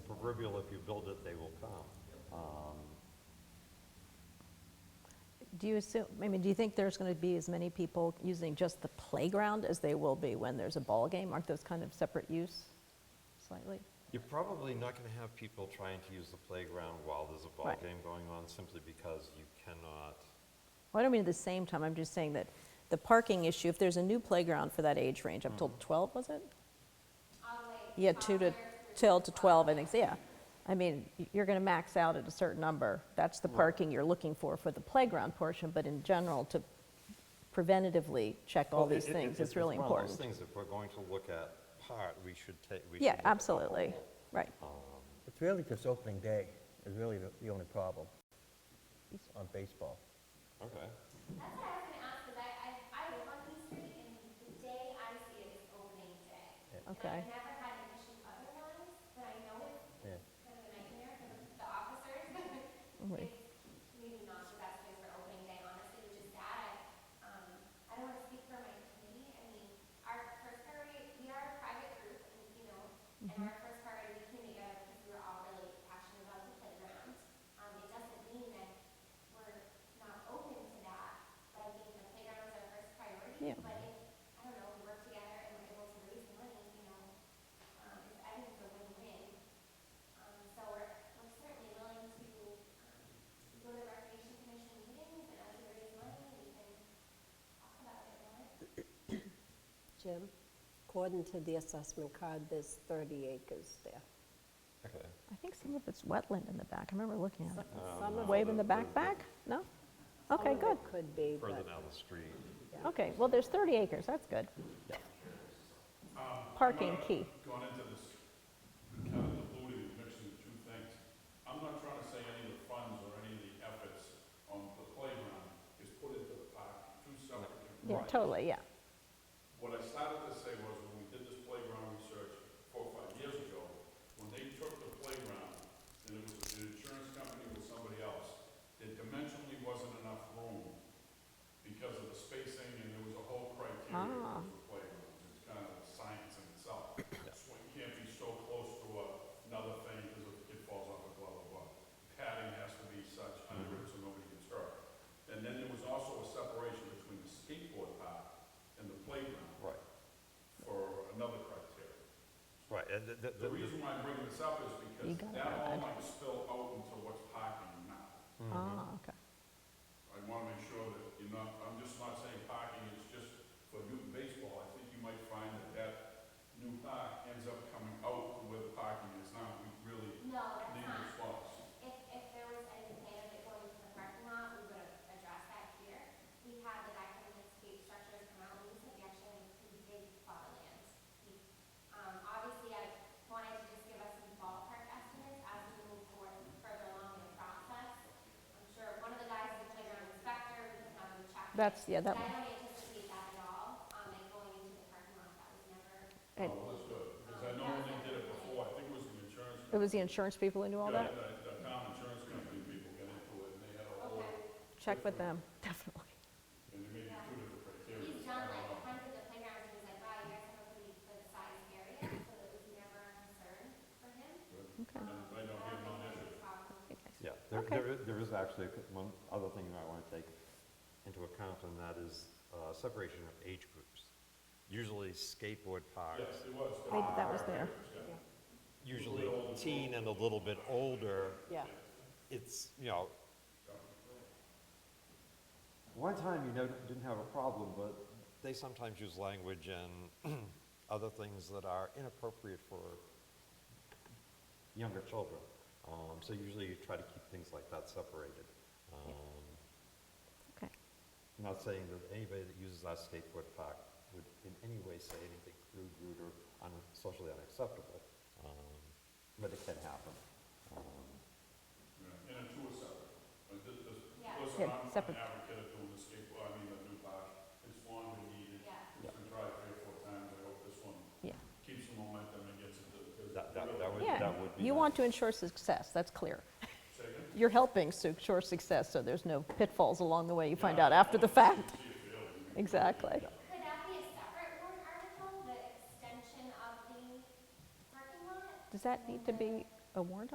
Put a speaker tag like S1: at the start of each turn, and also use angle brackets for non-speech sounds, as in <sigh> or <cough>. S1: proverbial, if you build it, they will come. Um,
S2: Do you assume, I mean, do you think there's going to be as many people using just the playground as they will be when there's a ball game? Aren't those kind of separate use slightly?
S1: You're probably not going to have people trying to use the playground while there's a ball
S2: Right.
S1: game going on, simply because you cannot,
S2: Well, I don't mean at the same time, I'm just saying that the parking issue, if there's a new playground for that age range, I'm
S1: Mm-hmm.
S2: told 12, was it? Yeah, 2 to, till to 12, I think, so, yeah. I mean, y- you're going to max out at a certain number. That's the parking you're looking for for the playground portion, but in general, to preventatively check all
S1: Well,
S2: these
S1: it- it-
S2: things
S1: it-
S2: is really
S1: It's one of those
S2: important.
S1: things, if we're going to look at part, we should take, we should.
S2: Yeah,
S1: look at the whole.
S2: absolutely, right.
S1: Oh.
S3: It's really just opening day is really the- the only problem on baseball.
S1: Okay.
S4: That's what I was gonna ask, 'cause I, I, I live on East Street, and the day I see it is opening day.
S2: Okay.
S4: And I've never had an issue otherwise, but I know it's
S3: Yeah.
S4: kind of a nightmare for the- the officers. <laughs>
S2: Mm-hmm.
S4: It's maybe not the best day for opening day, honestly, which is sad. I, um, I don't wanna speak for my committee, I mean, our first priority, we are a private group, and, you know, and our first priority, we came together because we were all really passionate about the playground. Um, it doesn't mean that we're not open to that, but I think the playground is our first priority.
S2: Yeah.
S4: But if, I don't know, we work together and we're able to raise money, you know, um, it's- I think it's a win-win. Um, so we're, we're certainly willing to, um, go to recreation commission meetings and as we raise money, we can talk about it more.
S5: Jim, according to the assessment card, there's 30 acres there.
S1: Okay.
S2: I think some of it's wetland in the back, I remember looking at it.
S5: Some of
S2: Wave in the
S1: the-
S2: back,
S1: the-
S2: back? No?
S5: some
S2: Okay,
S5: of it
S2: good.
S5: could be,
S1: Further
S5: but
S1: down the street.
S2: Okay, well, there's 30 acres, that's good. Parking key.
S6: Gone into this, kind of diluted and mixing the two things. I'm not trying to say any of the funds or any of the efforts on the playground is put into the park, two separate.
S2: Yeah,
S6: components.
S2: totally, yeah.
S6: What I started to say was, when we did this playground research four or five years ago, when they took the playground, and it was an insurance company with somebody else, there dimensionally wasn't enough room because of the spacing, and there was a whole criteria
S2: Ah.
S6: for playgrounds. It's kind of science in itself. So it can't be so close to a- another thing, because if the kid falls off a blah, blah, blah. Padding has to be such under it so nobody gets hurt. And then there was also a separation between the skateboard park and the playground
S1: Right,
S6: for another criteria.
S1: right. and the- the-
S6: The
S1: the-
S6: reason why I bring this up is
S2: You got
S6: because
S2: it,
S6: that all
S2: Rod.
S6: might spill out into what's parking now.
S2: Ah, okay.
S6: I want to make sure that you're not, I'm just not saying parking is just for youth baseball. I think you might find that that new park ends up coming out where the parking is now. We really
S4: No, that's
S6: need
S4: not.
S6: the spots.
S4: If, if there was any plan of it going to the parking lot, we would have addressed that here. We had the back end of escape structures come out, we said we actually have a pretty big plot of land. We- Um, obviously, I wanted to just give us some ballpark estimates as we move forward further along in the process. I'm sure one of the guys is a playground inspector, we can have him check. it.
S2: That's- yeah, that
S4: But
S2: one.
S4: I don't anticipate that at all, um, and going into the parking lot, that was never.
S2: It
S6: Well, that's good, because I know when they did it before, I think it was the insurance
S2: it was the insurance people who knew all that?
S6: Yeah, the, the town insurance company people got into it, and they had a whole,
S2: Check with them, <laughs> definitely.
S6: and they made two different criteria.
S4: He's done like hundreds of playgrounds, and he's like, wow, you guys have a pretty good sized area, so it was never a concern for him.
S2: Okay.
S6: I don't hear no issue.
S1: Yeah, there,
S2: Okay.
S1: there is, there is actually a- one other thing you might want to take into account, and that is uh, separation of age groups. Usually skateboard parks,
S6: Yes, it was.
S2: I think that was there.
S1: usually teen and a little bit older,
S2: Yeah.
S1: it's, you know. One time, you know, didn't have a problem, but they sometimes use language and <clears throat> other things that are inappropriate for younger children. Um, so usually you try to keep things like that separated. Um,
S2: Okay.
S1: I'm not saying that anybody that uses our skateboard park would in any way say anything crude, rude, or un- socially unacceptable, um, but it can happen.
S6: Yeah, And the two are separate. Like, this, this,
S4: Yeah.
S6: listen,
S2: Yeah,
S6: I'm an
S2: separate.
S6: advocate of doing the skateboard, I mean, the new park, it's long and needed.
S4: Yeah.
S6: It's been tried three or four times, I hope this one
S2: Yeah.
S6: keeps the momentum and gets it, because.
S1: That, that, that would,
S2: Yeah,
S1: that would be.
S2: you
S1: nice.
S2: want to ensure success, that's clear.
S6: Say again?
S2: You're helping to ensure success, so there's no pitfalls along the way you find out after the fact. <laughs> Exactly.
S4: Could that be a separate warrant article, the extension of the parking lot?
S2: Does that need to be a warrant